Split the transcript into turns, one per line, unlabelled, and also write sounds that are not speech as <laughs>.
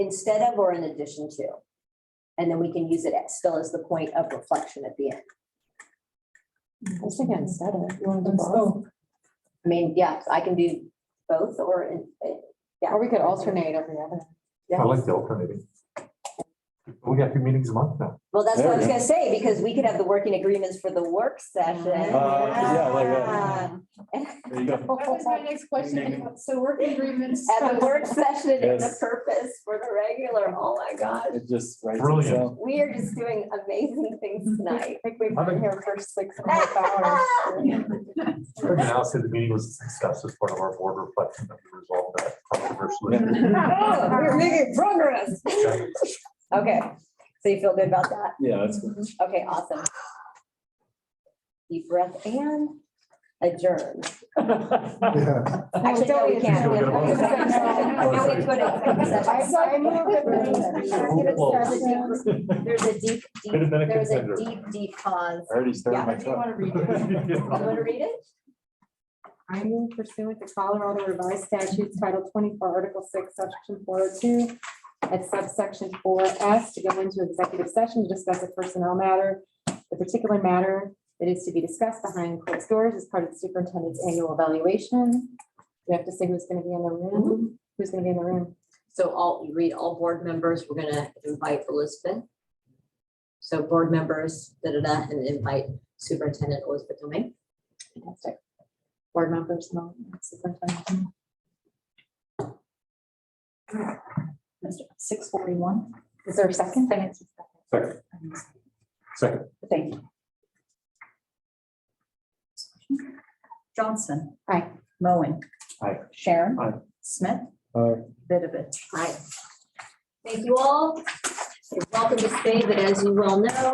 instead of or in addition to. And then we can use it as- still as the point of reflection at the end.
Let's take it instead of. You want to do
Let's
both?
I mean, yeah, I can do both or in-
Or we could alternate every other.
I like the alternating. We got two meetings a month now.
well, that's what I was
There we
gonna say, because we could have the working agreements for the work session.
Uh, yeah, like that. There you
Oh,
go.
That was my next question. So working agreements.
At the work session and the
Yes.
purpose for the regular, oh my gosh.
It just writes
Brilliant.
itself.
We are just doing amazing things tonight.
I think we've
been
here for six
and
<laughs>
a half hours.
Craig and Al said the meeting was discussed as part of our board reflection that we resolved that controversially.
Oh, We're making progress.
<laughs>
Okay, so you feel good about that?
Yeah, that's good. <laughs>
Okay, awesome. Deep breath and adjourn. Actually, no, we can't. We have to go to second session. Now we go to second session. There's a deep, deep,
Could have been a
there's a
contender.
deep, deep pause.
I already
Yeah.
started my cup.
You want to read it?
I move pursuant to Colorado Revised Statutes Title twenty-four, Article six, Section four oh two, at subsection four S, to go into executive session to discuss a personnel matter, the particular matter that is to be discussed behind closed doors as part of the superintendent's annual evaluation. We have to say who's gonna be in the room, who's gonna be in the room.
So all, you read all board members, we're gonna invite Elizabeth. So board members, da da da, and invite Superintendent Elizabeth Domingue.
Fantastic. Board members, no, superintendent.
Six forty-one.
Is there a second?
Second. Second.
Thank you.
Johnson.
Aye.
Moen.
Aye.
Sharon.
Aye.
Smith.
Aye.
Vidovich.
Hi. Thank you all. You're welcome to stay, but as you well know,